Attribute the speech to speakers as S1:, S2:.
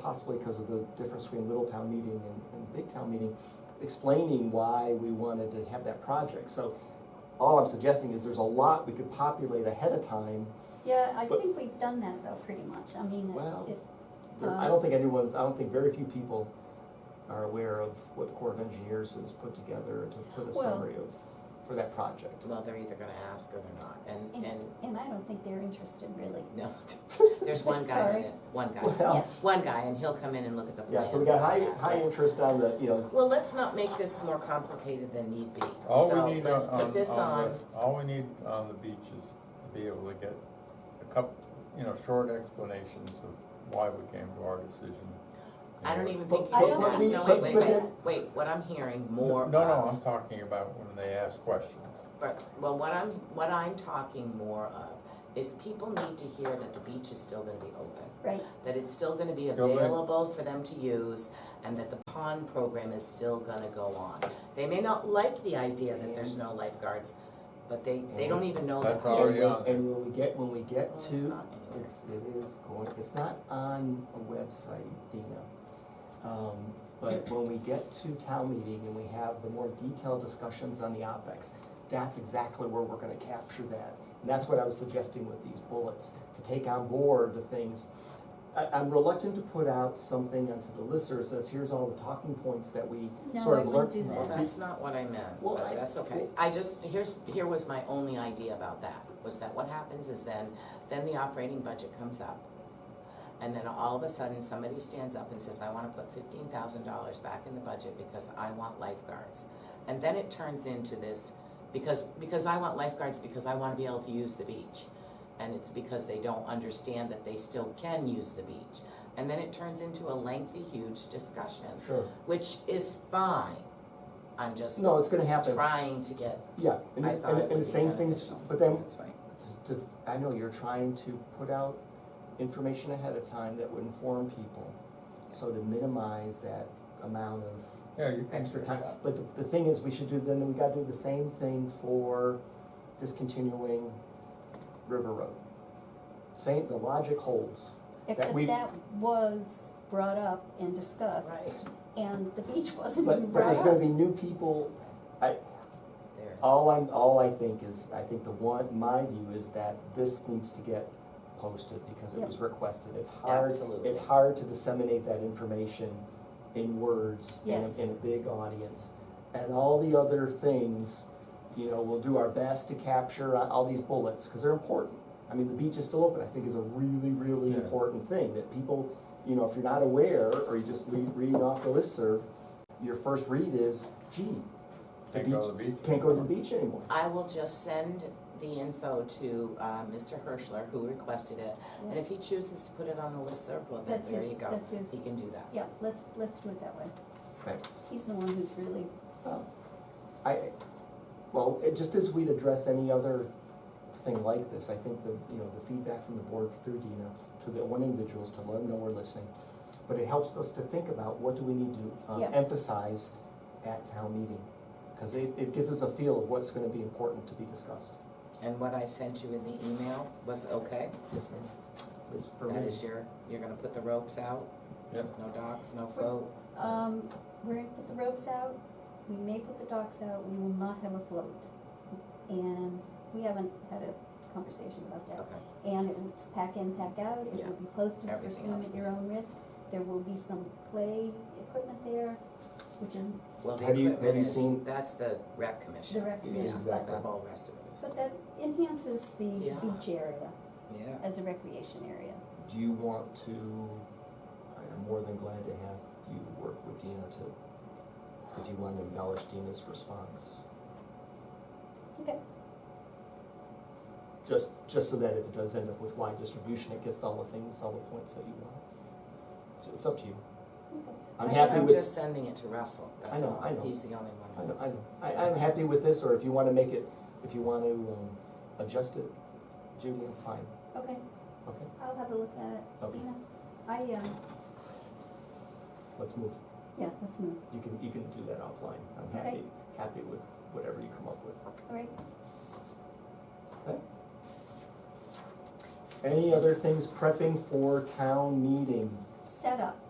S1: possibly because of the difference between little town meeting and, and big town meeting, explaining why we wanted to have that project. So all I'm suggesting is there's a lot we could populate ahead of time.
S2: Yeah, I
S1: But-
S2: think we've done that though, pretty much, I mean,
S1: Well-
S2: it,
S1: There- I don't think anyone's, I don't think very few people are aware of what the Corps of Engineers has put together to put a
S2: Well-
S1: summary of, for that project.
S3: Well, they're either gonna ask or they're not, and,
S1: Mm-hmm.
S2: and,
S3: and,
S2: and I don't think they're interested really.
S3: no, there's one guy that
S2: Sorry.
S3: is, one guy,
S1: Well,
S2: Yes.
S3: one guy, and he'll come in and look at the
S1: yeah,
S3: plans.
S1: so we got high,
S3: and
S1: high
S3: that.
S1: interest on the, you know,
S3: Well, let's not make this more complicated than need be,
S4: All
S3: so
S4: we need uh, um,
S3: let's
S4: on,
S3: put
S4: on,
S3: this
S4: on
S3: on,
S4: the- all we need on the beach is to be able to get a couple, you know, short explanations of why we came to our decision.
S3: I don't
S4: And-
S3: even think,
S1: I
S3: wait,
S1: don't
S3: no,
S1: think-
S3: no, wait, wait,
S1: but-
S3: wait, wait, what I'm hearing more
S4: No, no,
S3: of-
S4: I'm talking about when they ask questions.
S3: But, well, what I'm, what I'm talking more of is people need to hear that the beach is still gonna be open,
S2: Right,
S3: that it's still gonna be
S4: Go back.
S3: available for them to use, and that the pond program is still gonna go on. They may not like the idea that there's no lifeguards, but they, they don't even know that.
S4: Mm-hmm. That's already
S3: there's-
S4: on there.
S1: and when we get, when we get
S3: Well, it's
S1: to
S3: not anywhere.
S1: It's, it is going, it's not on a website, Dina. Um, But when we get to town meeting and we have the more detailed discussions on the OpEx, that's exactly where we're gonna capture that. And that's what I was suggesting with these bullets, to take on board the things. I, I'm reluctant to put out something onto the listserv that says, here's all the talking points that we
S2: No,
S1: sort
S2: I
S1: of learned.
S2: wouldn't do
S3: Well,
S2: that.
S3: that's not what I meant,
S1: Well,
S3: but
S1: I-
S3: that's okay.
S1: well-
S3: I just, here's, here was my only idea about that, was that what happens is then, then the operating budget comes up. And then all of a sudden, somebody stands up and says, I wanna put fifteen thousand dollars back in the budget because I want lifeguards. And then it turns into this, because, because I want lifeguards, because I wanna be able to use the beach. And it's because they don't understand that they still can use the beach. And then it turns into a lengthy, huge discussion
S1: Sure.
S3: which is fine. I'm just
S1: No, it's gonna happen,
S3: trying to get,
S1: yeah, and,
S3: I thought it
S1: and, and
S3: would
S1: the
S3: be
S1: same things,
S3: beneficial.
S1: but then
S3: That's fine.
S1: to, I know you're trying to put out information ahead of time that would inform people, so to minimize that amount of
S4: Yeah, you can.
S1: extra time. But the, the thing is, we should do, then we gotta do the same thing for discontinuing River Road. Same, the logic holds.
S2: Except
S1: we-
S2: that was brought up and discussed,
S3: Right,
S2: and the beach wasn't even
S1: But, but
S2: brought
S1: there's gonna
S2: up.
S1: be new people, I,
S3: there it is.
S1: all I'm, all I think is, I think the one, my view is that this needs to get posted because it was requested. It's hard
S3: Absolutely.
S1: it's hard to disseminate that information in words in
S2: Yes.
S1: a, in a big audience. And all the other things, you know, we'll do our best to capture uh, all these bullets, because they're important. I mean, the beach is still open, I think is a really, really
S4: Yeah.
S1: important thing, that people, you know, if you're not aware, or you just lead, reading off the listserv, your first read is, gee, the
S4: Can't go
S1: beach,
S4: to the beach.
S1: can't go to the
S4: anymore.
S1: beach anymore.
S3: I will just send the info to, uh, Mr. Hirschler, who requested it, and if he chooses to put it on the listserv, well, then
S2: That's
S3: there
S2: his-
S3: you go,
S2: that's his-
S3: he can do that.
S2: Yeah, let's, let's do it that way.
S1: Thanks.
S2: He's the one who's really,
S1: Oh. I, well, it, just as we'd address any other thing like this, I think the, you know, the feedback from the board through Dina to the one individuals to let them know we're listening. But it helps us to think about what do we need to um,
S2: Yeah.
S1: emphasize at town meeting? Because it, it gives us a feel of what's gonna be important to be discussed.
S3: And what I sent you in the email was okay,
S1: Yes, ma'am. It's for
S3: that
S1: me.
S3: is your, you're gonna put the ropes out?
S4: Yep.
S3: No docks, no float,
S2: um, we're gonna put the ropes out, we may put the docks out, we will not have a float. And we haven't had a conversation about that.
S3: okay,
S2: And it was pack in, pack out, it
S3: Yeah.
S2: will be posted for
S3: Everything
S2: student
S3: else
S2: at your own risk. There will be some play equipment there, which is
S3: well, the
S1: Have you- have
S3: equipment
S1: you
S3: is-
S1: seen-
S3: that's the rec
S2: the
S3: commission,
S1: Yes,
S2: recreation.
S3: but
S1: exactly.
S3: the whole rest of it is,
S2: But that enhances the
S3: Yeah.
S2: beach area
S3: yeah.
S2: as a recreation area.
S1: Do you want to, I am more than glad to have you work with Dina to, if you want to embellish Dina's response.
S2: Okay,
S1: Just, just so that if it does end up with wide distribution, it gets all the things, all the points that you want. So it's up to you.
S2: okay.
S1: I'm
S2: I-
S1: happy
S3: I'm
S1: with,
S3: just sending it to Russell.
S1: I know, I know.
S3: He's the only one.
S1: I know, I know. I, I'm happy with this, or if you wanna make it, if you wanna, um, adjust it, Judy, I'm fine,
S2: uh, Okay,
S1: okay?
S2: I'll have a look at it.
S1: Okay.
S2: You know, I, um,
S1: Let's move.
S2: yeah, let's move.
S1: You can, you can do that offline. I'm happy,
S2: Okay.
S1: happy with whatever you come up with.
S2: All right,
S1: Any other things prepping for town meeting?
S2: set up.